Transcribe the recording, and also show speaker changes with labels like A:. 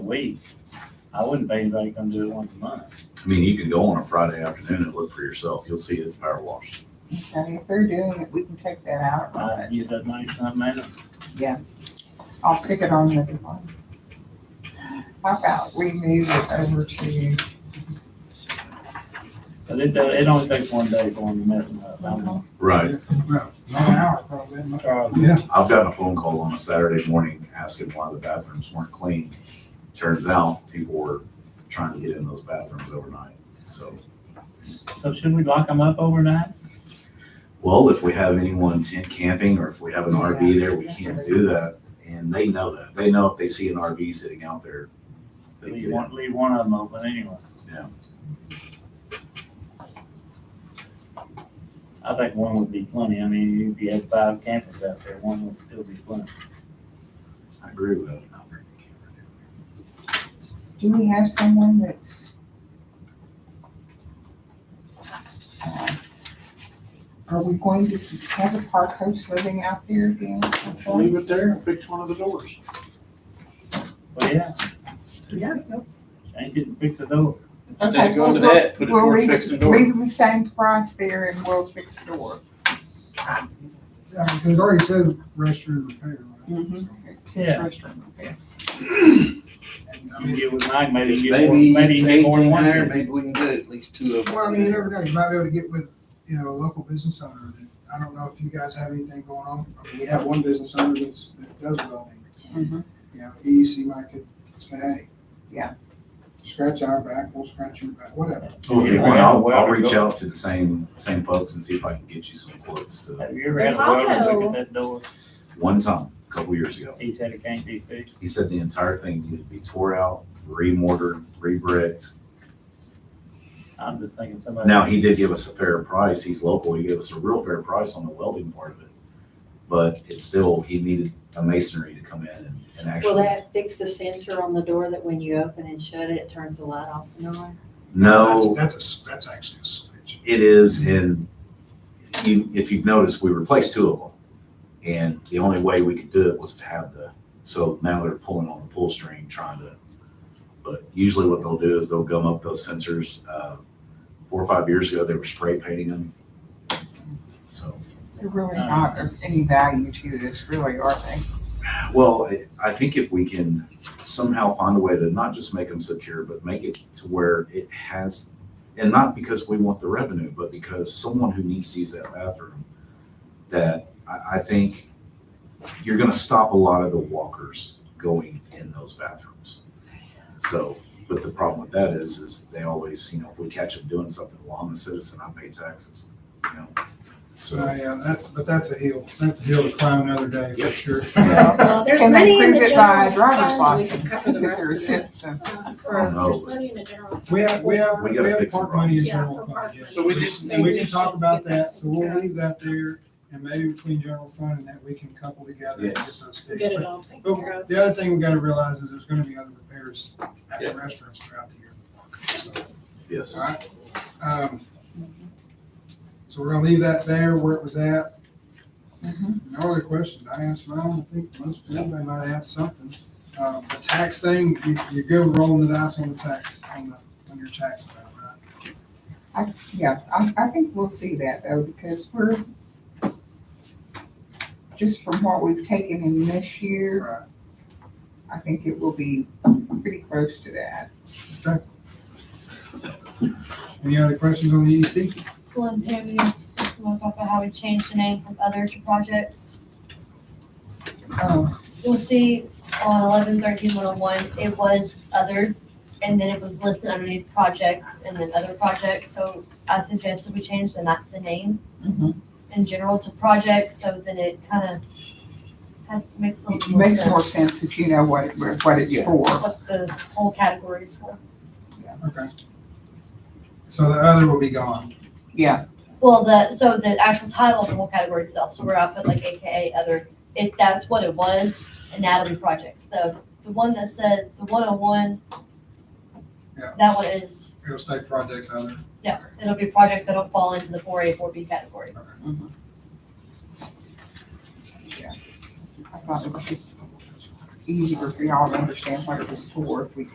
A: week. I wouldn't pay anybody to come do it once a month.
B: I mean, you can go on a Friday afternoon and look for yourself. You'll see it's power washed.
C: And if they're doing it, we can take that out.
A: I
C: but
A: get that money from that man.
C: I'll stick it on the one. How about we move it over to,
A: But it, do- it only takes one day for them to mess them up. I
D: Mm-hmm.
A: mean,
B: Right.
E: About One hour probably. isn't it?
A: Charles,
E: Yeah,
B: I've gotten a phone call on a Saturday morning asking why the bathrooms weren't clean. Turns out people were trying to get in those bathrooms overnight. So,
A: So should we lock them up overnight?
B: well, if we have anyone tent camping or if we have an RV there, we can't do that. And they know that. They know if they see an RV sitting out there. they
A: Leave
B: get
A: one, leave one of them open anyway.
B: Yeah.
A: I think one would be plenty. I mean, if you had five campers out there, one would still be plenty.
B: in. I agree with that.
C: do we have someone that's? Uh, Are we going to have a park host living out there again? at some point?
F: Leave it there and fix one of the doors.
A: But yeah,
C: Yeah.
A: change it and fix the door.
F: Instead
C: Okay,
F: of going to
C: well,
F: that, put it
C: we'll
F: towards
C: leave it-
F: fixing the door.
C: Leave the same price there and we'll fix the door.
E: yeah, because it already says restroom repair, right?
C: Mhm.
E: So,
C: It's
A: Yeah.
C: restroom, okay.
E: and,
A: I
E: I
A: mean,
E: mean,
A: Get with Mike, maybe you get, more-
F: Maybe
A: maybe you get more than
F: eighteen
A: one.
F: there,
A: here.
F: maybe we can get at least two of them.
E: Well, I mean, you never know, you might be able to get with, you know, a local business owner that, I don't know if you guys have anything going on. I mean, we have one business owner that's, that does welding,
C: Mhm.
E: you know, EEC might could say, hey.
C: Yeah.
E: Scratch our back, we'll scratch your back, whatever.
B: Well, Oh, if you
A: Yeah.
B: want, I'll, I'll
A: Yeah.
B: reach out to the same, same folks and see if I can get you some quotes. uh,
A: Have you ever had
D: There's
A: a welder
D: also-
A: look at that door?
B: One time, a couple years ago.
A: He said it can't be fixed.
B: He said the entire thing needed to be tore out, remortared, rebricked.
A: I'm just thinking somebody.
B: Now, he did give us a fair price. He's local. He gave us a real fair price on the welding part of it. But it's still, he needed a masonry to come in and, and
D: Will
B: actually,
D: that fix the sensor on the door that when you open and shut it, it turns the light off and on?
B: no,
E: That's, that's a, s- that's actually a switch.
B: it is in, you, if you've noticed, we replaced two of them. And the only way we could do it was to have the, so now they're pulling on the pull string trying to, but usually what they'll do is they'll gum up those sensors. Uh, Four or five years ago, they were spray painting them. So,
C: They're really not of any value to this, really, are they?
B: well, I- I think if we can somehow find a way to not just make them secure, but make it to where it has, and not because we want the revenue, but because someone who needs to use that bathroom, that I, I think you're gonna stop a lot of the walkers going in those bathrooms. So, but the problem with that is, is they always, you know, if we catch them doing something, well, I'm a citizen, I pay taxes, you know?
E: So,
B: So,
E: yeah, that's, but that's a hill, that's a hill to climb another day, for
B: Yep.
E: sure.
D: Well, there's
C: Can they
D: money in
C: prove
D: the
C: it by a
D: general
C: driver's
D: fund, we can
C: license
D: cover
C: if
D: the rest
C: they're a
D: of that.
C: citizen?
D: Uh,
B: I don't
D: Or there's
B: know.
D: money in the general. fund.
E: We have, we have,
B: We
E: we
B: gotta
E: have
B: fix it,
E: park
B: Ron.
E: money in
D: Yeah,
E: general
D: for
E: fund,
D: park
E: yes.
F: So we just
E: And we
D: So
E: can
D: we
E: talk
D: should
E: about
D: get that
E: that, so we'll
D: taken
E: leave that there, and maybe between general fund and that, we can couple together and get
B: Yes.
E: those
D: We
E: fixed.
D: Get it
E: But-
D: all taken care
E: But
D: of.
E: the other thing we gotta realize is there's gonna be other repairs at the restaurants throughout the year. So,
B: yes.
E: All right, um, so we're gonna leave that there where it was at. No other questions, I asked mine, I think most people might ask something. Um, the tax thing, you, you're good rolling the dice on the tax, on the, on your tax amount, right?
C: Yeah, I, I think we'll see that though, because we're, just from what we've taken in this year,
E: Right,
C: I think it will be pretty close to that.
E: okay. Any other questions on the E EDC?
G: Glen Avenue, we want to talk about how we changed the name from other to projects.
C: Um,
G: You'll see on eleven thirteen one oh one, it was other, and then it was listed underneath projects and then other projects, so I suggested we change the not the name
C: mhm.
G: in general to projects, so then it kind of has, makes a
C: It
G: little more
C: makes more
G: sense
C: sense that you know what, it- what it's
B: Yeah.
C: for.
G: what the whole category is for.
E: Okay. So the other will be gone.
C: Yeah,
G: Well, the, so the actual title of the whole category itself, so where I put like AKA other, it, that's what it was, anatomy projects, the, the one that said, the one oh one.
E: Yeah.
G: That one is,
E: It'll stay project other.
G: no, it'll be projects that don't fall into the four A, four B category.
C: I thought it was just easier for y'all to understand what it was for if we